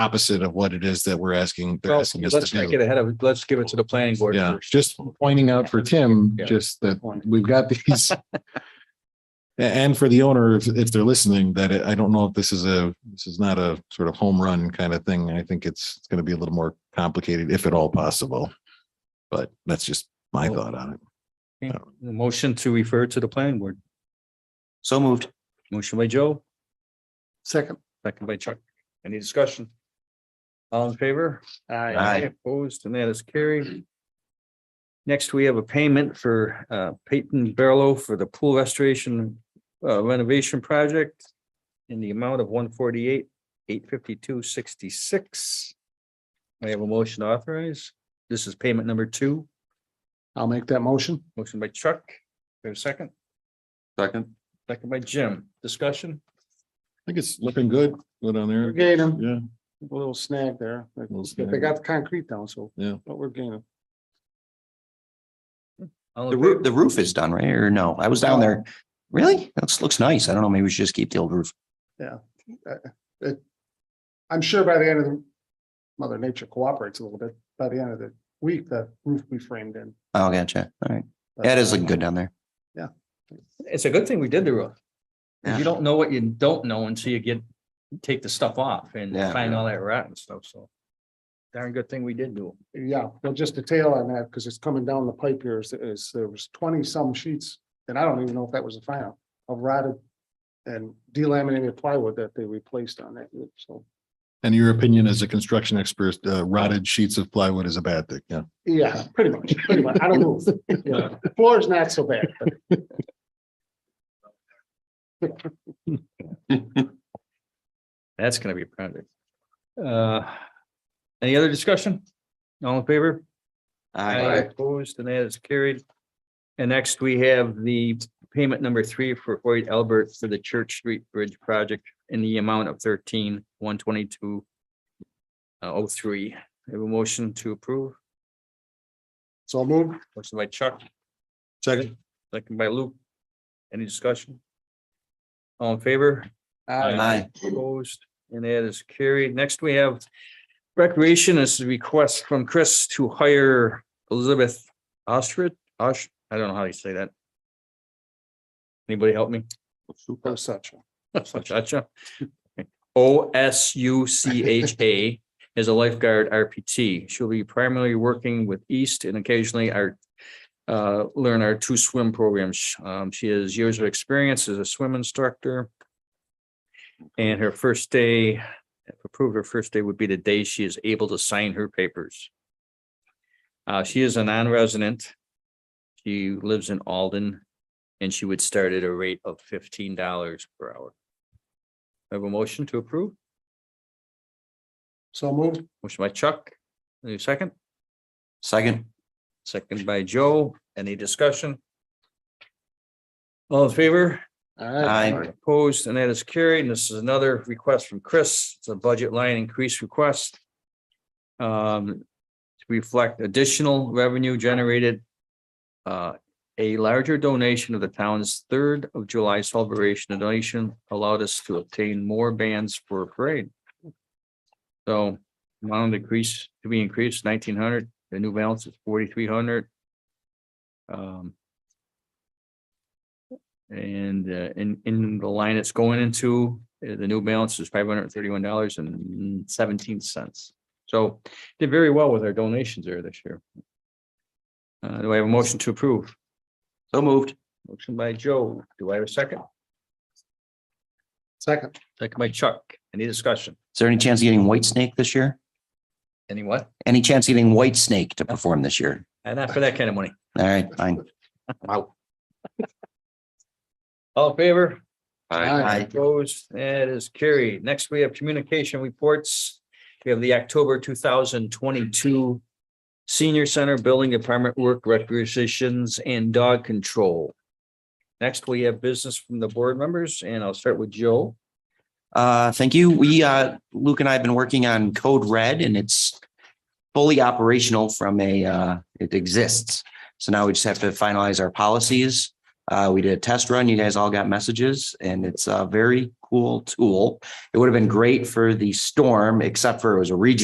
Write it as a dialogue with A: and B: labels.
A: opposite of what it is that we're asking, they're
B: Well,
A: asking us
B: let's
A: to
B: not
A: do.
B: get ahead of, it. let's give it to the planning board
A: Yeah,
B: first.
A: just pointing out for Tim,
B: Yeah.
A: just that we've got these. A- And for the owner, if, if they're listening, that I I don't know if this is a, this is not a sort of home run kind of thing. I think it's going to be a little more complicated, if at all possible. But that's just my thought on it.
B: Okay, the Motion to refer to the planning board.
C: So moved.
B: Motion by Joe,
D: Second.
B: second by Chuck. Any discussion? All in favor?
C: Aye.
B: Opposed, and that is carried. Next, we have a payment for uh, Peyton Barlow for the pool restoration uh, renovation project in the amount of one forty-eight, eight fifty-two, sixty-six. I have a motion to authorize. This is payment number two.
D: I'll make that motion.
B: Motion by Chuck. We have a second,
C: Second.
B: second by Jim. Discussion?
A: I think it's looking good, good on
D: We're
A: there.
D: gaining
A: Yeah.
D: a little snag there.
A: Little
D: But They
A: snag.
D: got the concrete down, so.
A: Yeah.
D: But we're gaining.
B: All in
C: The roof,
B: favor?
C: the roof is done, right? Or no, I was down there. Really? That looks nice. I don't know. Maybe we should just keep the old roof.
D: I'm sure by the end of the, Mother Nature cooperates a little bit. By the end of the week, the roof we framed in.
C: Oh, gotcha. All right.
D: But-
C: That is looking good down there.
B: It's a good thing we did the roof. 'Cause
C: Yeah.
B: You don't know what you don't know until you get, take the stuff off and
C: Yeah.
B: find all that rot and stuff, so. Darn good thing we did do. it.
D: Yeah, well, just a tail on that, because it's coming down the pipe here is, is there was twenty some sheets, and I don't even know if that was the final, of rotted. And delaminated plywood that they replaced on that roof, so,
A: And your opinion as a construction expert, uh, rotted sheets of plywood is a bad thing, yeah.
D: yeah, pretty much, pretty much, I don't move. Yeah, Floor's not so bad, but
B: That's gonna be a project. Uh, any other discussion? All in favor? Opposed, and that is carried. And next, we have the payment number three for Hoyt Albert for the Church Street Bridge project in the amount of thirteen, one twenty-two. Oh, three. Have a motion to approve,
D: so I'll move.
B: motion by Chuck,
A: Second.
B: Second by Luke. Any discussion? All in favor?
C: Aye.
B: Opposed, and that is carried. Next, we have recreation. This is a request from Chris to hire Elizabeth Ostrich, Osh, I don't know how you say that. Anybody help me?
D: Super such.
B: Osucha. O S U C H A is a lifeguard RPT. She'll be primarily working with East and occasionally our uh, learn our two swim programs. Um, she has years of experience as a swim instructor. And her first day, if approved, her first day would be the day she is able to sign her papers. Uh, she is a non-resident. She lives in Alden and she would start at a rate of fifteen dollars per hour. I Have a motion to approve?
D: So moved.
B: Motion by Chuck, any second?
C: Second.
B: Second by Joe, any discussion? All in favor?
C: Aye.
B: Opposed, and that is carried. And this is another request from Chris. It's a budget line increase request. um, to reflect additional revenue generated. uh, a larger donation of the town's third of July celebration. The donation allowed us to obtain more bands for a parade. So amount increase to be increased nineteen hundred. The new balance is forty-three hundred. Um, and uh, in, in the line it's going into, uh, the new balance is five hundred and thirty-one dollars and seventeen cents. So did very well with our donations there this year. Uh, do I have a motion to approve?
C: So moved.
B: Motion by Joe. Do I have a second?
D: Second.
B: Second by Chuck. Any discussion?
C: Is there any chance of getting White Snake this year?
B: Any what?
C: Any chance of getting White Snake to perform this year?
B: And not for that kind of money.
C: All right, fine. Wow.
B: All in favor?
C: Aye.
B: Opposed, that is carried. Next, we have communication reports. We have the October two thousand twenty-two Senior Center Building Department Work Requisitions and Dog Control. Next, we have business from the board members, and I'll start with Joe.
C: Uh, thank you. We, uh, Luke and I have been working on Code Red and it's fully operational from a, uh, it exists. So now we just have to finalize our policies. Uh, we did a test run. You guys all got messages and it's, uh, very cool tool. It would have been great for the storm, except for it was a regional.